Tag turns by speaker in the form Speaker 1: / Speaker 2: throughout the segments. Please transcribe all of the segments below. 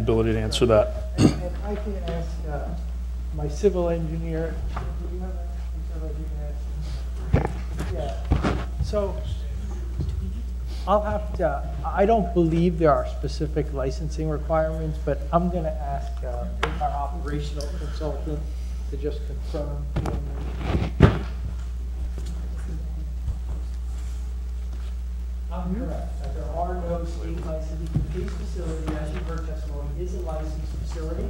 Speaker 1: ability to answer that.
Speaker 2: And I can ask uh, my civil engineer, do you have a civil engineer? Yeah. So I'll have to, I don't believe there are specific licensing requirements, but I'm going to ask uh, our operational consultant to just confirm. I'm correct, that there are no state licenses. The police facility, as you heard testimony, is a licensed facility.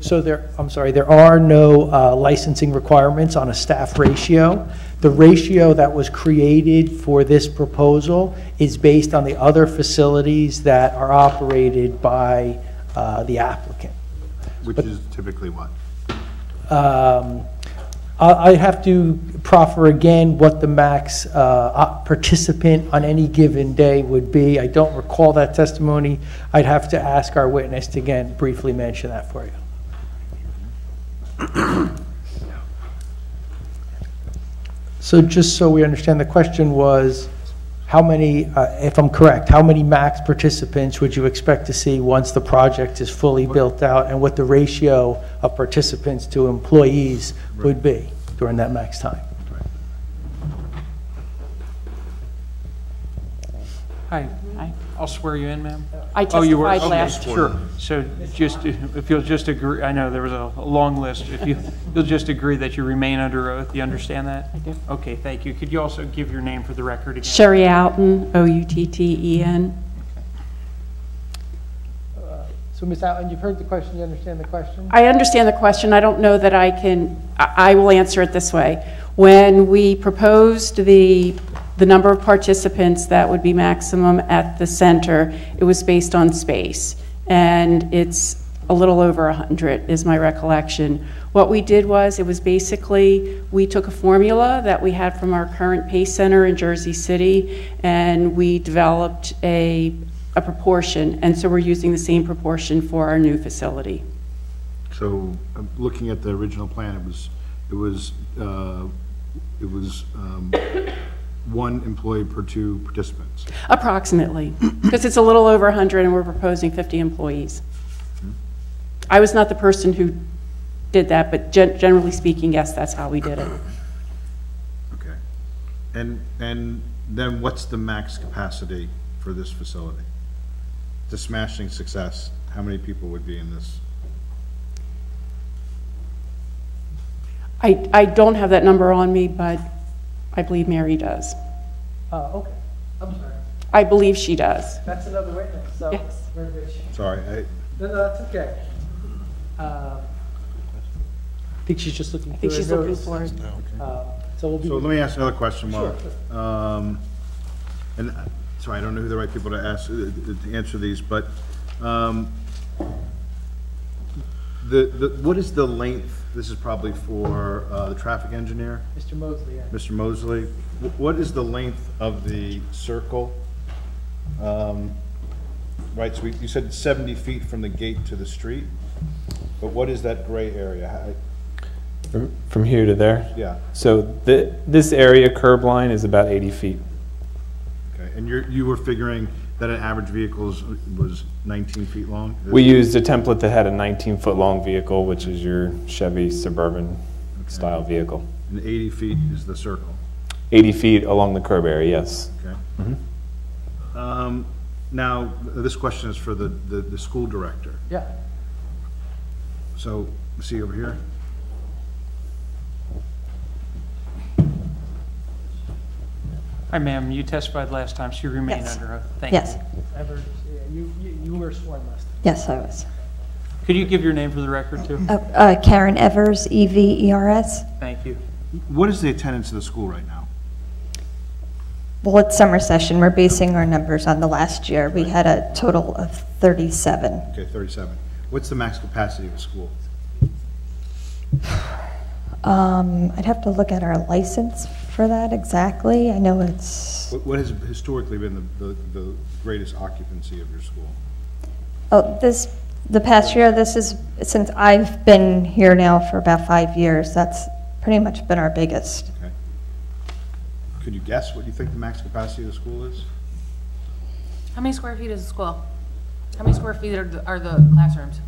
Speaker 2: So there, I'm sorry, there are no uh, licensing requirements on a staff ratio. The ratio that was created for this proposal is based on the other facilities that are operated by uh, the applicant.
Speaker 3: Which is typically what?
Speaker 2: Um, I I have to proffer again what the max uh, op- participant on any given day would be. I don't recall that testimony. I'd have to ask our witness to again briefly mention that for you. So just so we understand, the question was, how many, uh, if I'm correct, how many max participants would you expect to see once the project is fully built out? And what the ratio of participants to employees would be during that max time?
Speaker 4: Hi,
Speaker 5: Hi.
Speaker 4: I'll swear you in, ma'am.
Speaker 5: I
Speaker 4: Oh, you were-
Speaker 5: testified
Speaker 4: okay,
Speaker 5: last,
Speaker 4: Sure, so just, if you'll just agree, I know there was a a long list, if you, you'll just agree that you remain under oath, you understand that? I
Speaker 5: do.
Speaker 4: Okay, thank you. Could you also give your name for the record again?
Speaker 5: Sherry Outen, O-U-T-T-E-N.
Speaker 2: So Ms. Allen, you've heard the question, you understand the question?
Speaker 5: I understand the question, I don't know that I can, I I will answer it this way. When we proposed the, the number of participants that would be maximum at the center, it was based on space, and it's a little over 100, is my recollection. What we did was, it was basically, we took a formula that we had from our current Pace Center in Jersey City, and we developed a, a proportion, and so we're using the same proportion for our new facility.
Speaker 3: So, um, looking at the original plan, it was, it was, uh, it was um, one employee per two participants.
Speaker 5: Approximately, because it's a little over 100 and we're proposing 50 employees. I was not the person who did that, but gen- generally speaking, yes, that's how we did it.
Speaker 3: Okay. And, and then what's the max capacity for this facility? The smashing success, how many people would be in this?
Speaker 5: I, I don't have that number on me, but I believe Mary does.
Speaker 2: Uh, okay, I'm sorry,
Speaker 5: I believe she does.
Speaker 2: that's another witness, so.
Speaker 5: Yes.
Speaker 2: we're rich.
Speaker 3: Sorry, I,
Speaker 2: No, no, that's okay. Um, I think she's just looking
Speaker 5: I
Speaker 2: for
Speaker 5: think she's looking
Speaker 2: notice.
Speaker 5: for it.
Speaker 2: Um, So we'll be.
Speaker 3: so let me ask another question, Mark. Um, And, uh, sorry, I don't know who the right people to ask, uh, to answer these, but um, the, the, what is the length, this is probably for uh, the traffic engineer,
Speaker 2: Mr. Mosley, yeah.
Speaker 3: Mr. Mosley, wh- what is the length of the circle? Um, Right, so we- you said 70 feet from the gate to the street, but what is that gray area? How-
Speaker 6: From, from here to there?
Speaker 3: Yeah,
Speaker 6: So th- this area curb line is about 80 feet.
Speaker 3: okay, and you're, you were figuring that an average vehicle is- was 19 feet long?
Speaker 6: We used a template that had a 19 foot long vehicle, which is your Chevy Suburban style vehicle.
Speaker 3: And 80 feet is the circle,
Speaker 6: 80 feet along the curb area, yes.
Speaker 3: okay? Um, Now, th- this question is for the, the, the school director.
Speaker 2: Yeah.
Speaker 3: So, see over here?
Speaker 4: Hi, ma'am, you testified last time, so you remain
Speaker 7: Yes.
Speaker 4: under oath. Thank you.
Speaker 7: Yes,
Speaker 2: Ever, yeah, you, you you were sworn last time.
Speaker 7: yes, I was.
Speaker 4: Could you give your name for the record, too?
Speaker 7: Uh, uh, Karen Evers, E E-V-E-R-S.
Speaker 4: Thank you.
Speaker 3: What is the attendance of the school right now?
Speaker 7: Well, it's summer session, we're basing our numbers on the last year. We had a total of 37.
Speaker 3: Okay, 37. What's the max capacity of a school?
Speaker 7: Um, I'd have to look at our license for that exactly. I know it's,
Speaker 3: What what has historically been the- the the greatest occupancy of your school?
Speaker 7: oh, this, the past year, this is, since I've been here now for about five years, that's pretty much been our biggest.
Speaker 3: Okay. Could you guess what you think the max capacity of the school is?
Speaker 8: How many square feet is the school? How many square feet are the, are the classrooms?